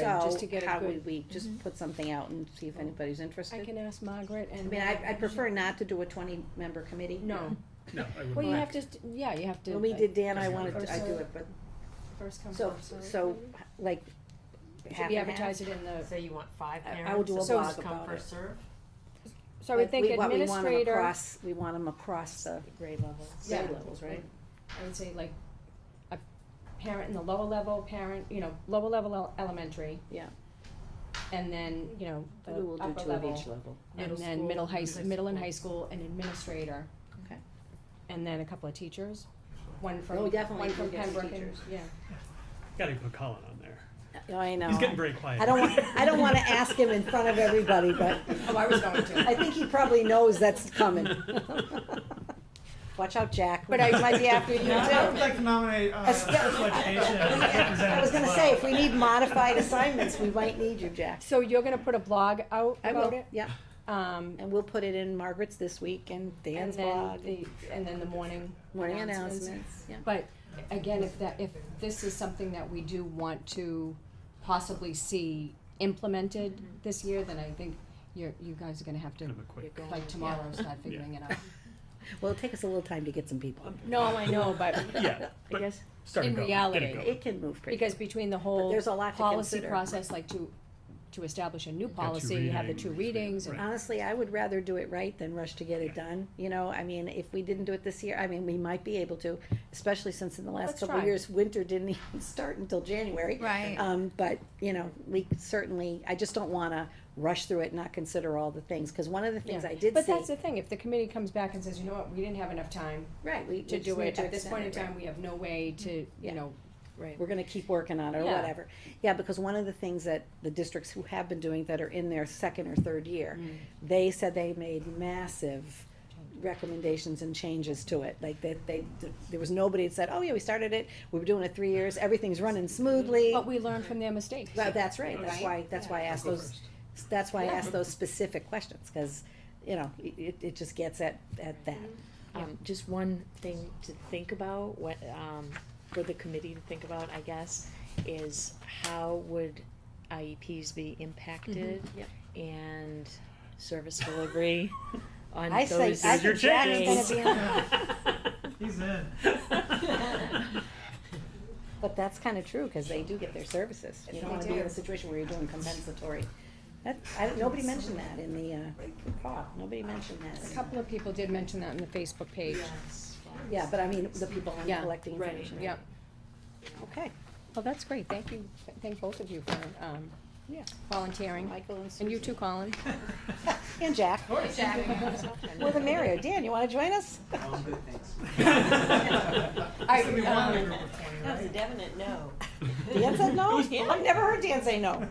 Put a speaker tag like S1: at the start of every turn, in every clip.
S1: So,
S2: just to get a
S1: how
S2: good- Mhm. Oh.
S1: would we just put something out and see if anybody's
S2: I
S1: interested?
S2: can ask Margaret
S1: I
S2: and.
S1: mean, I, I prefer not to do a twenty-member committee.
S2: No,
S3: No, I would
S2: well, you
S3: not.
S2: have to, st- yeah, you have to.
S1: When we
S2: like,
S1: did Dan, I
S3: Just
S1: wanted
S3: one
S1: to, I
S2: person.
S1: do it, but,
S2: First come,
S1: so,
S2: first served.
S1: so, like,
S2: Should
S1: half
S2: we
S1: and half.
S2: advertise it in the,
S4: So you want five
S1: I-
S4: parents?
S1: I will do a
S4: so
S1: blog
S4: first come,
S1: about
S4: first serve?
S2: so I would
S1: Like,
S2: think
S1: we want- we want 'em
S2: administrator,
S1: across- We want them across the
S4: Grade levels.
S2: Yeah.
S1: grade levels, right?
S2: I would say like, a parent in the lower level, parent, you know, lower level el- elementary.
S1: Yeah.
S2: And then, you know,
S1: We will
S2: the
S1: do
S2: upper
S1: two of each
S2: level,
S1: level.
S2: and then middle high, s- middle and high school, and administrator.
S1: Okay.
S2: And then a couple of teachers, one from,
S1: Oh, definitely
S2: one from
S1: do get some
S2: Pembroke and,
S1: teachers.
S2: yeah.
S3: Gotta put Colin on there.
S1: Oh, I know.
S3: He's getting very quiet.
S1: I don't want, I don't wanna ask him in front of everybody, but
S2: Oh, I was going to.
S1: I think he probably knows that's coming. Watch out, Jack,
S2: But I-
S1: it might be after you too.
S2: Yeah,
S5: I would like to nominate uh,
S1: Espe-
S5: special education. as
S1: I was gonna
S5: representative.
S1: say, if we need modified assignments, we might need you, Jack.
S2: So you're gonna put a blog out about it?
S1: Yeah,
S2: Um,
S1: and we'll put it in Margaret's this week and
S2: and
S1: Dan's
S2: then
S1: blog,
S2: the, and then the morning.
S1: morning
S2: announcements.
S1: announcements, yeah.
S2: But again, if that, if this is something that we do want to possibly see implemented
S1: Mm-hmm.
S2: this year, then I think you're, you guys are gonna have to,
S3: Kind of a quick.
S2: like tomorrow, start figuring it out.
S1: Well, it'll take us a little time to get some people.
S2: No, I know, but
S3: Yeah,
S2: I
S3: but
S2: guess,
S3: start
S2: in
S3: it going, get
S2: reality,
S3: it going.
S1: It can move pretty.
S2: because between the whole
S1: there's a lot to
S2: policy
S1: consider.
S2: process, like to, to establish a new
S3: two
S2: policy, have the two
S3: readings,
S2: readings and
S3: right.
S1: Honestly, I would rather do it right than rush to get it done, you know, I mean, if we didn't do it this year, I mean, we might be able to, especially since in the last
S2: Let's
S1: couple of
S2: try.
S1: years, winter didn't even start until January.
S6: Right.
S1: Um, but, you know, we certainly, I just don't wanna rush through it, and not consider all the things, cause one of the things
S2: Yeah.
S1: I did
S2: But
S1: see,
S2: that's the thing, if the committee comes back and says, you know what, we didn't have enough time
S1: right, we we
S2: to
S1: just
S2: do
S1: need
S2: it,
S1: to
S2: at this point in
S1: extend it, right.
S2: time, we have no way to,
S1: Yeah.
S2: you know, right.
S1: we're gonna keep working on it or
S2: Yeah.
S1: whatever. Yeah, because one of the things that the districts who have been doing that are in their second or third year,
S2: Mm.
S1: they said they made massive recommendations and changes to it, like that they, there was nobody that said, oh yeah, we started it, we were doing it three years, everything's running smoothly.
S2: But we learn from their mistakes.
S1: But that's right, that's
S2: Right?
S1: why, that's why I asked
S3: Go
S1: those,
S3: first.
S1: that's why I asked those specific questions, cause, you know, it- it, it just gets at, at that.
S4: Um, just one thing to think about, what, um, for the committee to think about, I guess, is how would IEPs be impacted?
S1: yep.
S4: And service delivery on
S1: I say-
S4: those.
S1: I
S3: Here's your
S1: think Jack is gonna
S4: days.
S1: be
S5: He's in.
S1: But that's kind of true, because they do get their services. You
S2: Yes,
S1: don't
S2: they
S1: want to be in
S2: do.
S1: a situation where you're doing compensatory. That, I, don't- nobody mentioned that in the, uh, call, nobody mentioned
S2: A
S1: that.
S2: couple of people did mention that on the Facebook page.
S4: Yes.
S1: Yeah, but I mean, the people on
S2: Yeah,
S1: collecting
S4: right,
S1: information.
S2: Yep.
S1: Okay,
S2: Well, that's great. Thank you, thank both of you for, um,
S1: Yeah.
S2: volunteering.
S1: Michael and Susan.
S2: And you too, Colin.
S1: And Jack. More than merrier. Dan, you want to join us?
S5: It's gonna be
S4: um,
S5: one in a group of twenty, right?
S4: definite no.
S1: Dan said no? I've never heard Dan say no.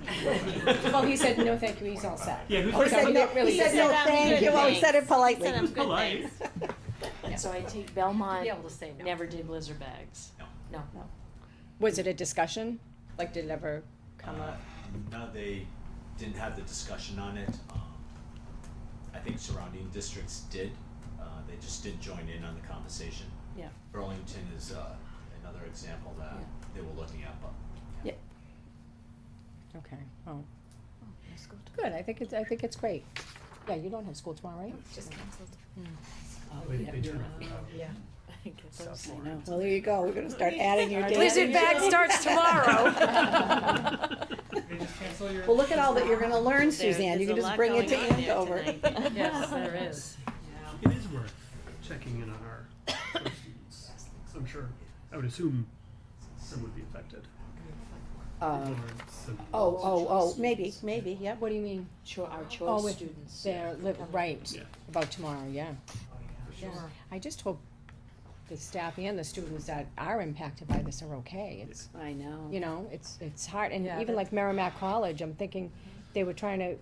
S2: Well, he said, no, thank you, he's all set.
S3: Yeah, who's
S1: Oh, he
S3: like,
S2: Okay.
S1: said
S2: we
S1: no,
S2: don't really-
S1: he said
S2: He
S1: no,
S7: said, um,
S1: thank
S7: good
S1: you, well, he
S7: thanks.
S1: said it politely.
S7: Said I'm good,
S3: polite.
S7: thanks.
S4: So I take Belmont,
S2: Be able to say no.
S4: never did blizzard bags.
S2: Was it a discussion? Like, did it ever come
S8: Uh,
S2: up?
S8: No, they didn't have the discussion on it. Um, I think surrounding districts did. Uh, they just didn't join in on the conversation.
S1: Yeah.
S8: Burlington is uh, another example that they were looking at, but
S2: Okay, oh. Good, I think it's, I think it's great. Yeah, you don't have school tomorrow, right?
S1: Oh,
S3: they, they turn around.
S1: I know. Well, there you go. We're going to start adding your Dan.
S2: Blizzard bag starts
S3: tomorrow.
S5: They just cancel your-
S1: Well, look at all that you're going to learn,
S7: There
S1: Suzanne. You
S7: is
S1: can
S7: a
S1: just
S7: lot
S1: bring it to
S7: going on there
S1: Andover.
S7: tonight.
S4: Yes, there is.
S3: It is worth checking in on our first students. I'm sure, I would assume some would be affected.
S1: Uh,
S3: Or some-
S1: Oh, oh, oh, maybe, maybe, yep.
S2: What do you mean?
S4: Cho- our
S2: Oh,
S4: choice
S2: with
S4: students.
S2: their, li- right,
S3: Yeah.
S2: about tomorrow, yeah.
S4: Sure.
S2: I just hope the staff and the students that are impacted by this are okay. It's,
S1: I know.
S2: you know, it's, it's hard, and
S4: Yeah,
S2: even like Merrimack College, I'm thinking, they were trying to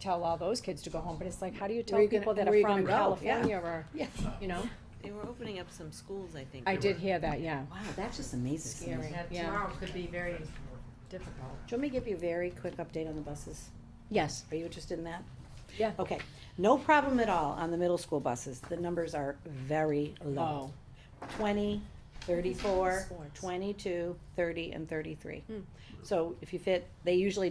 S2: tell all those kids to go home, but it's like, how do you tell
S1: you gonna-
S2: people that
S1: where
S2: are
S1: you gonna
S2: from
S1: go? Yeah.
S2: California or,
S1: Yeah.
S2: you know?
S7: They were opening up some schools, I think.
S2: I did hear that, yeah.
S1: Wow, that's just amazing.
S2: Scary. Yeah.
S4: Tomorrow could be very difficult.
S1: Do you want me to give you a very quick update on the buses?
S2: Yes,
S1: Are you interested in that?
S2: yeah.
S1: Okay, no problem at all on the middle school buses. The numbers are very low.
S2: Oh,
S1: Twenty thirty-four,
S4: Sports.
S1: twenty-two, thirty, and thirty-three.
S7: Hmm.
S1: So if you fit, they usually